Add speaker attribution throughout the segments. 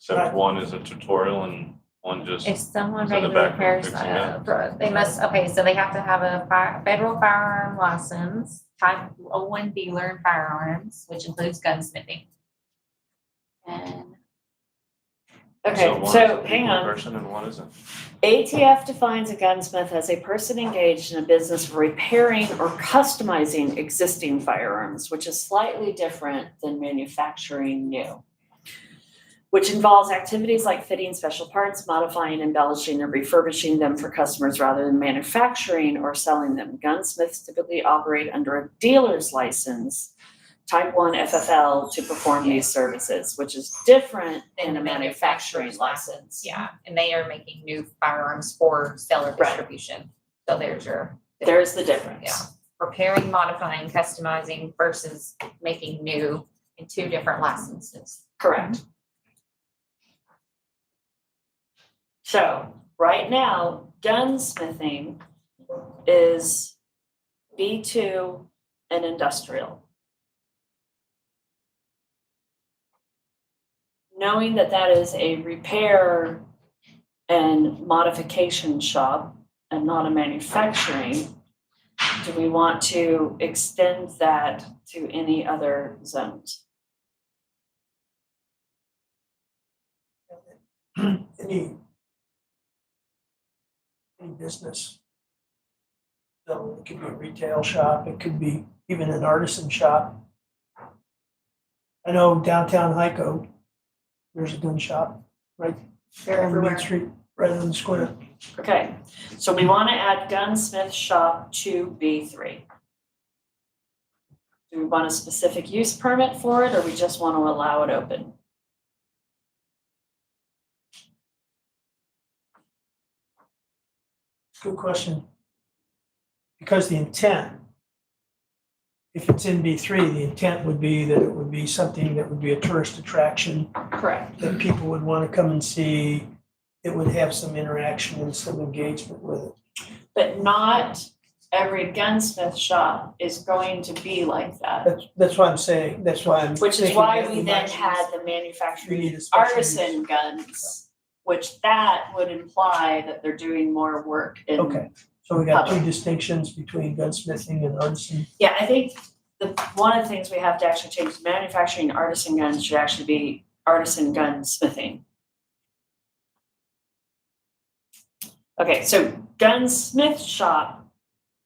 Speaker 1: Except one is a tutorial and one just,
Speaker 2: If someone
Speaker 1: Is that the
Speaker 2: regularly
Speaker 1: background
Speaker 2: repairs,
Speaker 1: fixing
Speaker 2: uh, for- they must, okay, so they have to have a fire, federal firearm license, type O one dealer in firearms, which includes gunsmithing. And
Speaker 1: so
Speaker 3: Okay,
Speaker 1: one is a
Speaker 3: so hang
Speaker 1: people
Speaker 3: on.
Speaker 1: person and one isn't.
Speaker 3: ATF defines a gunsmith as a person engaged in a business of repairing or customizing existing firearms, which is slightly different than manufacturing new. Which involves activities like fitting special parts, modifying, embellishing, or refurbishing them for customers rather than manufacturing or selling them. Gunsmiths typically operate under a dealer's license, type one FFL, to perform these services, which is different than a manufacturing license.
Speaker 2: yeah, and they are making new firearms for seller
Speaker 3: Right.
Speaker 2: distribution. So there's your
Speaker 3: There's the difference.
Speaker 2: Yeah. repairing, modifying, customizing versus making new in two different licenses.
Speaker 3: Correct. So, right now, gunsmithing is B two and industrial. Knowing that that is a repair and modification shop and not a manufacturing, do we want to extend that to any other zones?
Speaker 4: any any business. So it could be a retail shop, it could be even an artisan shop. I know downtown Hyco, there's a gun shop
Speaker 2: They're
Speaker 4: on
Speaker 2: everywhere.
Speaker 4: Main Street, right on the square.
Speaker 3: Okay, so we want to add gunsmith shop to B three. Do we want a specific use permit for it, or we just want to allow it open?
Speaker 4: Good question. Because the intent, if it's in B three, the intent would be that it would be something that would be a tourist attraction.
Speaker 3: Correct.
Speaker 4: that people would want to come and see, it would have some interaction and some engagement with it.
Speaker 3: But not every gunsmith shop is going to be like that,
Speaker 4: That's, that's why I'm saying, that's why I'm.
Speaker 3: which is
Speaker 4: thinking
Speaker 3: why
Speaker 4: that
Speaker 3: we
Speaker 4: might
Speaker 3: then
Speaker 4: use-
Speaker 3: had the
Speaker 4: We
Speaker 3: manufacturing
Speaker 4: need a special use.
Speaker 3: artisan guns, which that would imply that they're doing more work in
Speaker 4: Okay, so we got two distinctions between gunsmithing and artisan.
Speaker 3: Yeah, I think the, one of the things we have to actually change, is manufacturing artisan guns should actually be artisan gun smithing. Okay, so gunsmith shop,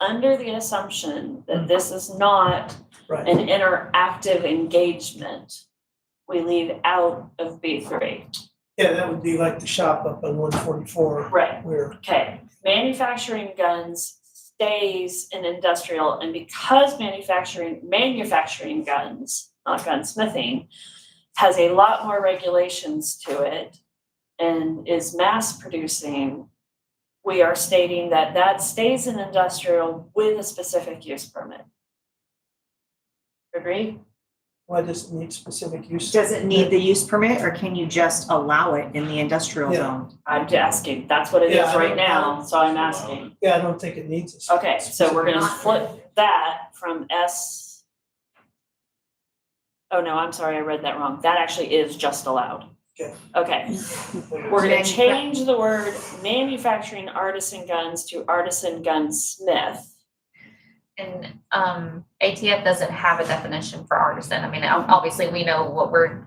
Speaker 3: under the assumption that this is not
Speaker 4: Right,
Speaker 3: an interactive engagement, we leave out of B three.
Speaker 4: yeah, that would be like the shop up on one forty-four
Speaker 3: Right,
Speaker 4: where,
Speaker 3: Okay, manufacturing guns stays in industrial, and because manufacturing, manufacturing guns, not gunsmithing, has a lot more regulations to it and is mass producing, we are stating that that stays in industrial with a specific use permit. Agree?
Speaker 4: why does it need specific use?
Speaker 5: Does it need the use permit or can you just allow it in the industrial
Speaker 4: Yeah.
Speaker 5: zone?
Speaker 3: I'm asking, that's what it is
Speaker 4: Yeah, I
Speaker 3: right
Speaker 4: don't-
Speaker 3: now, so I'm asking.
Speaker 4: Yeah, I don't think it needs a.
Speaker 3: Okay, so we're gonna
Speaker 4: specific-
Speaker 3: flip that from S. Oh, no, I'm sorry, I read that wrong. That actually is just allowed.
Speaker 4: Okay.
Speaker 3: Okay, we're gonna
Speaker 5: Manufa-
Speaker 3: change the word manufacturing artisan guns to artisan gunsmith.
Speaker 2: And um ATF doesn't have a definition for artisan. I mean, ob- obviously, we know what we're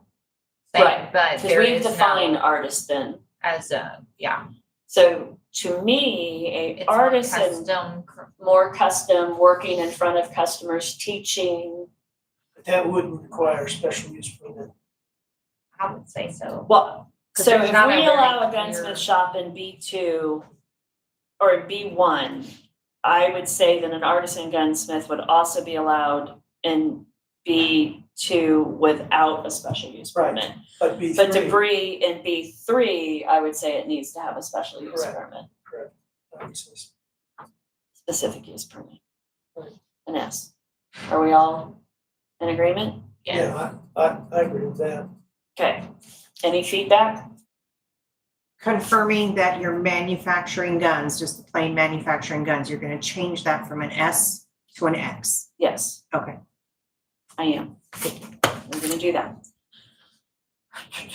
Speaker 2: saying,
Speaker 3: Right,
Speaker 2: but
Speaker 3: Cause
Speaker 2: there
Speaker 3: we've
Speaker 2: is
Speaker 3: defined
Speaker 2: no
Speaker 3: artisan.
Speaker 2: as a, yeah.
Speaker 3: So to me,
Speaker 2: it's
Speaker 3: a
Speaker 2: not
Speaker 3: artisan,
Speaker 2: custom cr-
Speaker 3: more custom, working in front of customers, teaching.
Speaker 4: That would require special use permit.
Speaker 2: I would say so.
Speaker 3: Well,
Speaker 2: Because
Speaker 3: So
Speaker 2: there's
Speaker 3: if we
Speaker 2: not a very
Speaker 3: allow a
Speaker 2: clear-
Speaker 3: gunsmith shop in B two or B one, I would say that an artisan gunsmith would also be allowed in B two without a special use
Speaker 4: Right,
Speaker 3: permit.
Speaker 4: But B three.
Speaker 3: But debris in B three, I would say it needs to have a special use
Speaker 4: Correct.
Speaker 3: permit,
Speaker 4: obviously.
Speaker 3: specific use permit.
Speaker 4: Right.
Speaker 3: An S. Are we all in agreement?
Speaker 2: Yeah,
Speaker 4: Yeah, I, I, I agree with that.
Speaker 3: Okay. Any feedback?
Speaker 5: Confirming that you're manufacturing guns, just the plain manufacturing guns, you're gonna change that from an S to an X.
Speaker 3: Yes.
Speaker 5: Okay.
Speaker 3: I am. We're gonna do that.